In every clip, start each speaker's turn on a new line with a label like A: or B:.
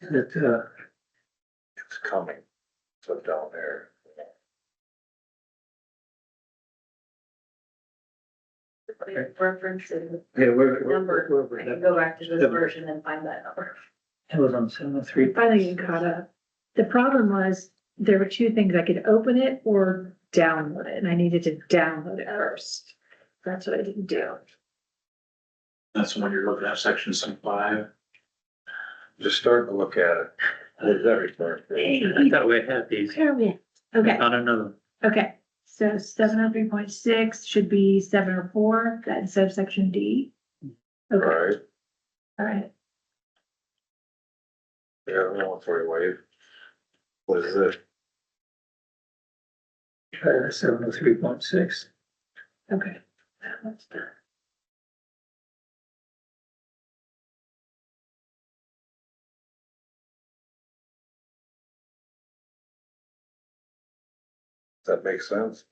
A: It, uh, it's coming, so down there.
B: Reference and
A: Yeah, we're,
B: Number.
A: we're,
B: I
A: we're,
B: can
A: that-
B: go back to this
A: Seven.
B: version and find that number.
A: it was on seven oh three.
C: Finally, you caught up. The problem was, there were two things, I could open it or download it, and I needed to download
B: Oh.
C: it first. That's what I didn't do.
D: That's when you're looking at section some five.
A: Just starting to look at it. There's everything.
C: I
D: thought we had these.
C: Where are we? at? Okay,
D: Not another.
C: okay, so seven oh three point six should be seven oh four, that's subsection D. Okay,
A: Right,
C: all right,
A: yeah, military wave. What is it? Uh, seven oh three point six.
C: okay. That one's done.
A: Does that make sense?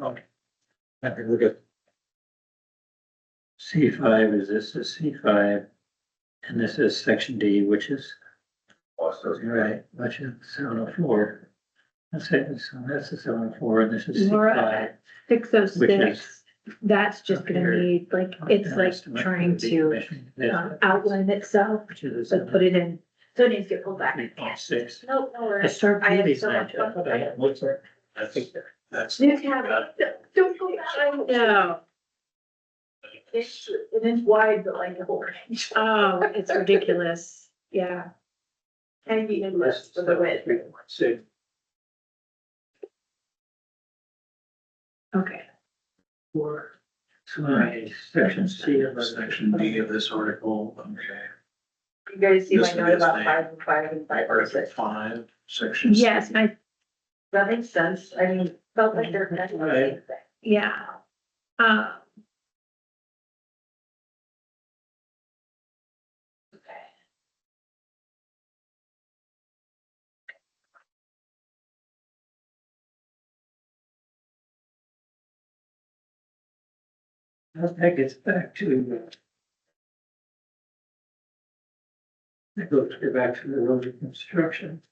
D: Okay, look at.
E: C five is this is C five, and this is section D, which is,
A: Also,
E: you're right, which is seven oh four. That's it, so that's the seven oh four, and this is C
C: Laura,
E: five.
C: Six oh
E: Which
C: six,
E: is-
C: that's just
E: Here.
C: gonna need, like, it's like trying to um, outline itself,
E: Which is
C: so put it in.
B: So it needs to get pulled back.
E: three point six.
B: Nope, no
E: I
B: worries.
E: started
B: I
E: doing
B: have
E: these
B: so
E: and I
B: much
E: thought I
B: fun.
E: had one sort.
D: That's, that's.
B: New tab. Don't go back.
C: No,
B: It's, it is wide, but like a whole range.
C: oh, it's ridiculous, yeah.
B: And the endless for the width.
E: Three point six.
C: Okay,
E: Four. So I, section C of the
D: Section D of this article, okay.
B: You guys see my
D: This one
B: note
D: is
B: about
D: the-
B: five and five and five or
D: Article
B: six.
D: five, section.
C: yes, I,
B: That makes sense. I mean, felt like they're kind of the same thing.
C: yeah. Uh,
E: That gets back to. uh, That goes to back to the road reconstruction.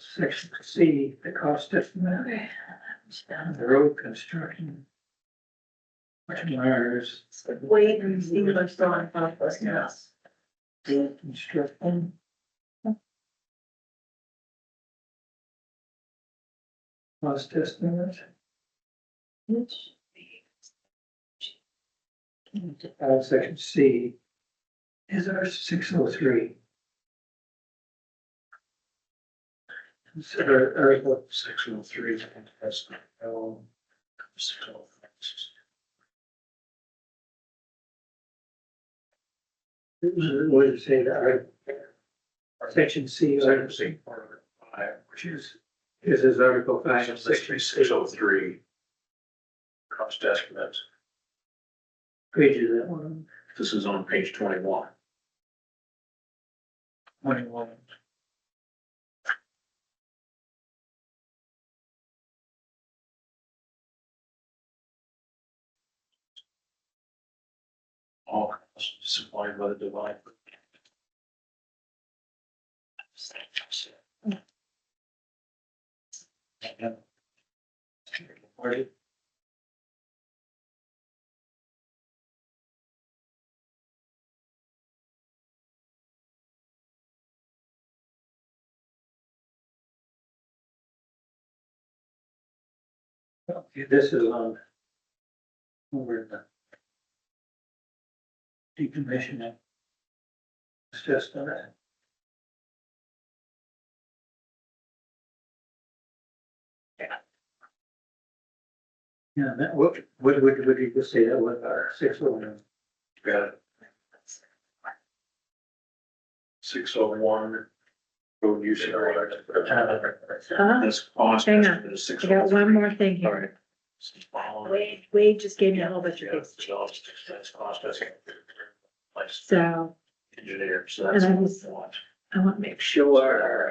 E: Section C, the cost estimate
C: okay,
E: of the road construction. Which mirrors
B: Wade and Steve are still on front of us now.
E: road construction. Cost estimate.
C: which-
E: Uh, section C is our six oh three. Consider article
D: Section oh three, that's, oh. Six oh.
E: What did you say that article? Section C,
D: Section
E: article-
D: C, article five,
E: which is, this is article five,
D: section
E: of section
D: six,
E: C,
D: six oh three. Cost estimate,
E: pages that one,
D: this is on page twenty-one.
E: twenty-one.
D: all costs supplied by the divine.
E: Okay, This is on. Over in the. Decommissioning. It's just on that. Yeah, that, what, what, what, what did you say that was our six oh one?
D: Got it. Six oh one, road use and electric.
C: Oh,
D: This cost
C: Hang on.
D: estimate is six
C: I
D: oh
C: got one
D: three.
C: more thing here. Wade, Wade just gave me a whole bunch of things,
D: That's cost estimate. Place
C: so,
D: engineer, so that's.
C: And I was-
D: what
C: I wanna make sure.